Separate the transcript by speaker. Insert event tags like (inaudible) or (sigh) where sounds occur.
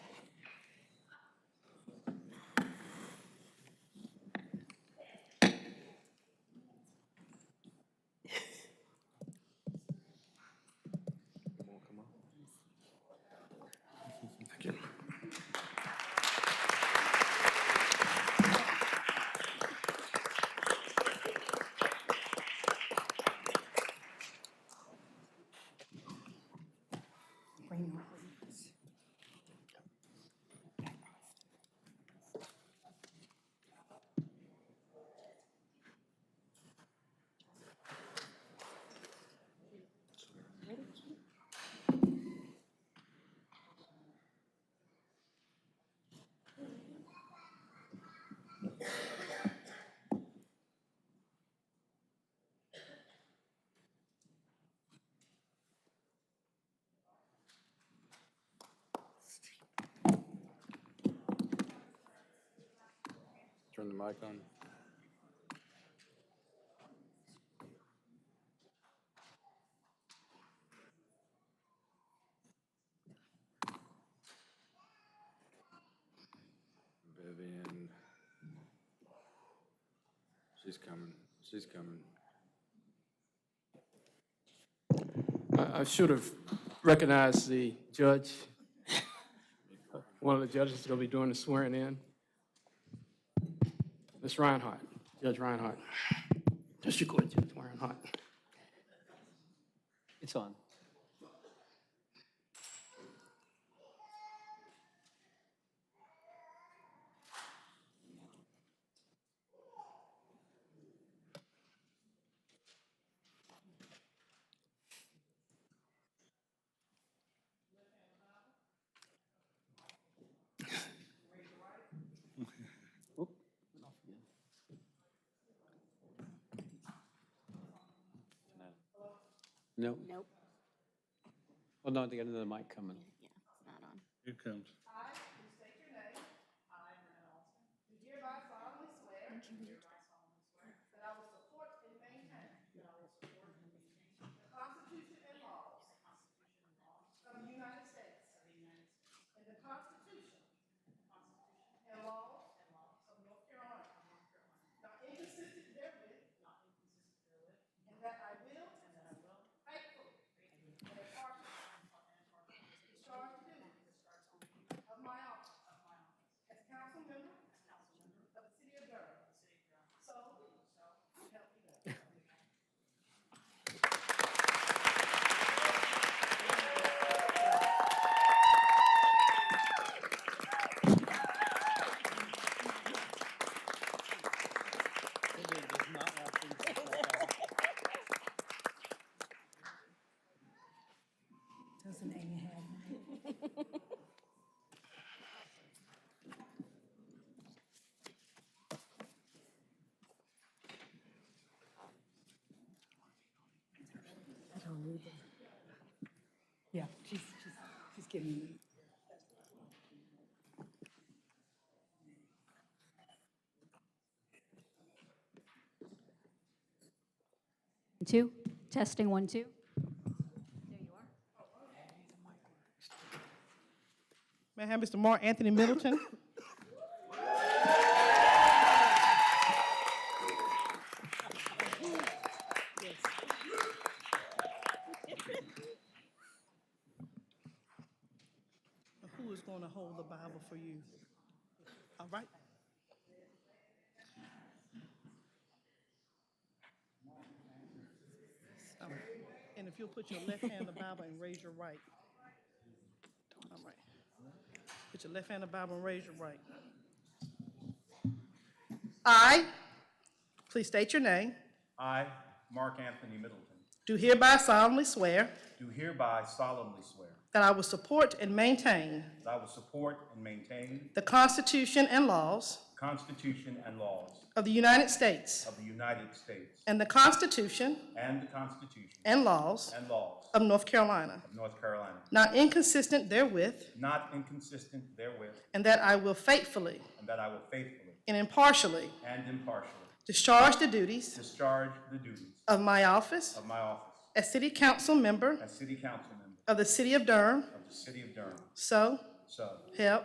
Speaker 1: mic on? Vivian. She's coming, she's coming.
Speaker 2: I I should have recognized the judge. (laughs) One of the judges is going to be doing the swearing in. Ms. Reinhardt, Judge Reinhardt. District Court Judge Reinhardt.
Speaker 3: It's on. No.
Speaker 4: Nope.
Speaker 3: Well, no, they got another mic coming.
Speaker 4: Yeah, it's not on.
Speaker 5: Here it comes.
Speaker 6: I, who state your name. I, Renee Alston. Do hereby solemnly swear. Do hereby solemnly swear. That I will support and maintain. That I will support and maintain. The Constitution and laws. The Constitution and laws. Of the United States. Of the United States. And the Constitution. Constitution. And laws. And laws. Of North Carolina. Of North Carolina. Not inconsistent therewith. Not inconsistent therewith. And that I will. And that I will. Faithfully. And impartially. Discharge the duties. Of my office. Of my office. As council member. As council member. Of the city of Durham. City of Durham. So. So. Help me God.
Speaker 7: Doesn't Amy have one? I don't either. Yeah, she's, she's, she's giving me.
Speaker 4: Two, testing one, two.
Speaker 6: May I have Mr. Mark Anthony Middleton? Who is going to hold the Bible for you? All right. All right. And if you'll put your left hand on the Bible and raise your right. All right. Put your left hand on the Bible and raise your right. I, please state your name,
Speaker 8: I, Mark Anthony Middleton,
Speaker 6: do hereby solemnly swear
Speaker 8: do hereby solemnly swear
Speaker 6: that I will support and maintain
Speaker 8: that I will support and maintain
Speaker 6: the Constitution and laws
Speaker 8: the Constitution and laws
Speaker 6: of the United States
Speaker 8: of the United States
Speaker 6: and the Constitution
Speaker 8: and the Constitution
Speaker 6: and laws
Speaker 8: and laws
Speaker 6: of North Carolina,
Speaker 8: of North Carolina,
Speaker 6: not inconsistent therewith,
Speaker 8: not inconsistent therewith,
Speaker 6: and that I will faithfully
Speaker 8: and that I will faithfully
Speaker 6: and impartially
Speaker 8: and impartially
Speaker 6: discharge the duties
Speaker 8: discharge the duties
Speaker 6: of my office
Speaker 8: of my office
Speaker 6: as City Council Member
Speaker 8: as City Council Member
Speaker 6: of the City of Durham,
Speaker 8: of the City of Durham.
Speaker 6: so
Speaker 8: So,
Speaker 6: help